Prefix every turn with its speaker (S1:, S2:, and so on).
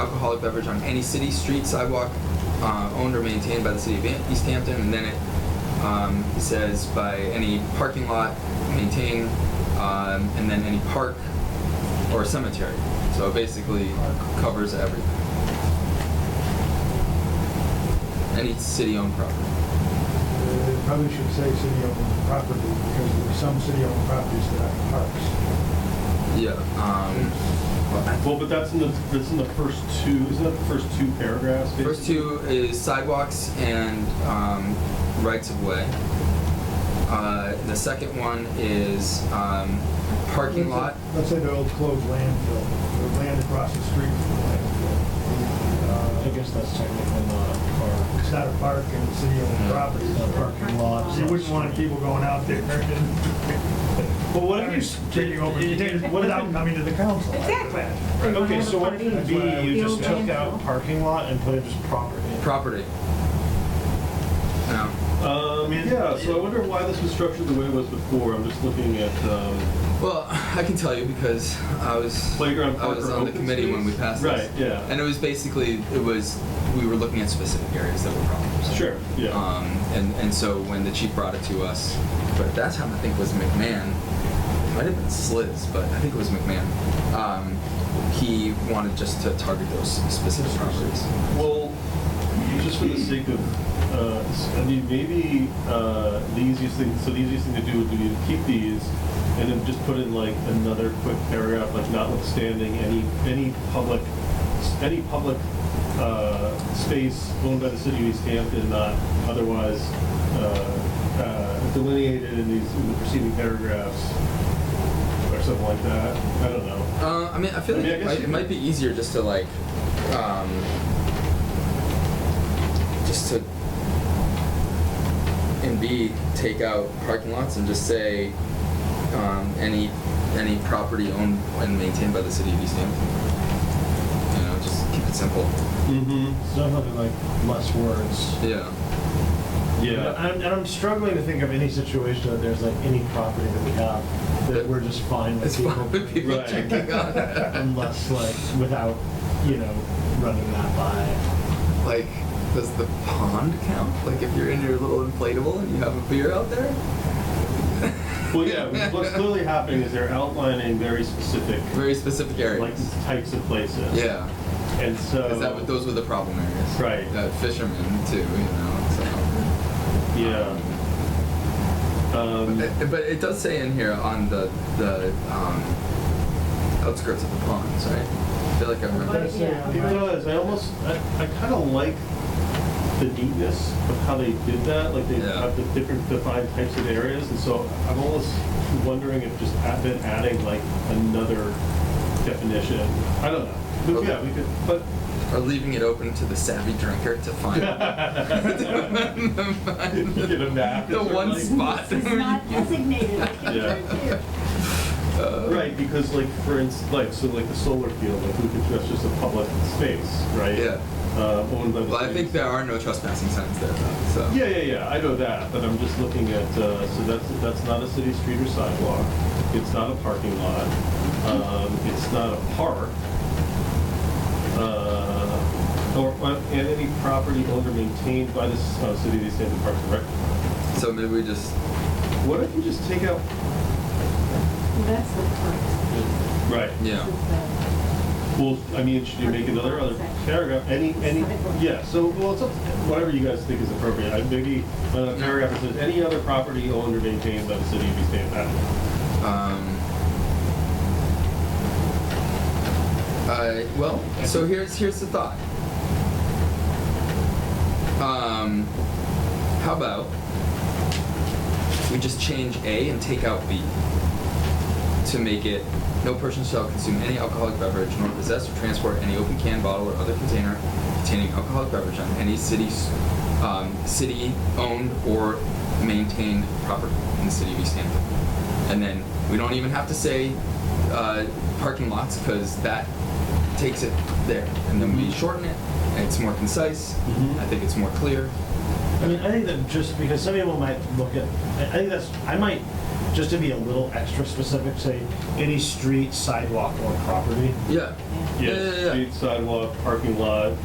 S1: alcoholic beverage on any city, street, sidewalk, uh, owned or maintained by the city of Am- East Hampton, and then it um, says by any parking lot maintained, um, and then any park or cemetery. So it basically covers everything. Any city-owned property.
S2: Uh, It probably should say city-owned property, because there are some city-owned properties that have parks.
S1: Yeah. Um, well, I-
S3: Well, but that's in the, that's in the first two, isn't that the first two paragraphs?
S1: First two is sidewalks and um, rights of way. Uh, the second one is um, parking lot.
S2: Let's say the old closed landfill, the land across the street from the
S4: I
S2: landfill. Uh,
S4: guess that's technically not a park.
S2: It's not a park and it's city-owned property,
S4: It's
S2: it's
S4: not a parking lot.
S2: You wouldn't want people going out there and.
S3: Well, what if you s-
S2: Taking over,
S3: it- it- what if
S2: without
S3: you-
S2: coming to the council.
S5: Exactly.
S4: Okay, so what if B, you just took out
S5: Building.
S4: parking lot and put it just property?
S1: Property. No.
S3: Um, yeah, so I wonder why this was structured the way it was before. I'm just looking at, um,
S1: Well, I can tell you because I was
S3: Playground,
S1: I
S3: park,
S1: was
S3: or
S1: on the
S3: open
S1: committee when we
S3: space?
S1: passed this.
S3: Right, yeah.
S1: And it was basically it was we were looking at specific areas that were problems.
S3: sure, yeah.
S1: Um, and, and so when the chief brought it to us, but at that time I think it was McMahon, it might have been Sliz, but I think it was McMahon. Um, he wanted just to target those specific properties.
S3: Well, just for the sake of, uh, s- I mean, maybe, uh, the easiest thing, so the easiest thing to do would be to keep these and then just put in like another quick paragraph, like notwithstanding any, any public, any public, uh, space owned by the city of East Hampton, not otherwise, uh, uh, delineated in these, in the preceding paragraphs or something like that. I don't know.
S1: Uh, I mean, I feel
S3: I
S1: like
S3: mean, I
S1: it,
S3: guess
S1: might,
S3: you
S1: it might be easier just to like, um, just to in B take out parking lots and just say um, any any property owned and maintained by the city of East Hampton. You know, just keep it simple.
S3: Mm-hmm.
S4: So nothing like less words.
S1: Yeah.
S4: And I'm, and I'm struggling to think of any situation that there's like any property that we have that we're just fine with
S1: It's
S4: people.
S1: fine with people
S3: Right.
S1: checking on it.
S4: Unless like, without, you know, running that by.
S1: Like, does the pond count? Like, if you're in your little inflatable and you have a beer out there?
S3: Well, yeah, what's- what's clearly happening is they're outlining very specific,
S1: Very specific areas.
S3: like, types of places.
S1: yeah.
S3: And so.
S1: Is that what those were the problem areas?
S3: Right.
S1: Uh, fishermen too, you know. So.
S3: Yeah. Um,
S1: But, but it does say in here on the the um, outskirts of the ponds, right? I feel like I remember.
S2: That's, uh,
S3: it does, I almost, I, I kind of like the neatness of how they did that, like they
S1: Yeah.
S3: have the different defined types of areas, and so I'm almost wondering if just add- then adding like another definition, I don't know. But
S1: Okay.
S3: yeah, we could, but
S1: Or leaving it open to the savvy drinker to find.
S3: Get a map
S1: The
S3: or
S1: one
S3: something.
S1: spot.
S5: It's not designated.
S3: Yeah. Right, because like, for instance, like, so like the solar field, like, we could, that's just a public space, right?
S1: Yeah.
S3: Uh, owned by the.
S1: Well, I think uh,
S3: state.
S1: there are no trespassing signs there though. So.
S3: Yeah, yeah, yeah, I know that, but I'm just looking at, uh, so that's, that's not a city street or sidewalk, it's not a parking lot, um, it's not a park. Uh, or, or- and any property owned or maintained by the, s- uh, city of East Hampton Parks and Rec.
S1: So maybe we just.
S3: What if you just take out?
S5: That's the part.
S3: Right.
S1: Yeah.
S3: Well, I mean, should you make another other paragraph, any, any, yeah, so, well, it's up, to- whatever you guys think is appropriate, I, maybe, uh, paragraph that says, any other property owned or maintained by the city of East Hampton, I don't know.
S1: Um, I, well, so here's here's the thought. Um, how about we just change A and take out B to make it no person shall consume any alcoholic beverage nor possess or transport any open can, bottle, or other container containing alcoholic beverage on any city's um, city owned or maintained property in the city of East Hampton. And then we don't even have to say uh, parking lots because that takes it there. And then we shorten it. And it's more concise.
S3: Mhm.
S1: I think it's more clear.
S4: I mean, I think that just because some people might look at, I I think that's, I might just to be a little extra specific, say, any street, sidewalk, or property.
S1: Yeah. Yeah, yeah, yeah.
S3: Street, sidewalk, parking lot,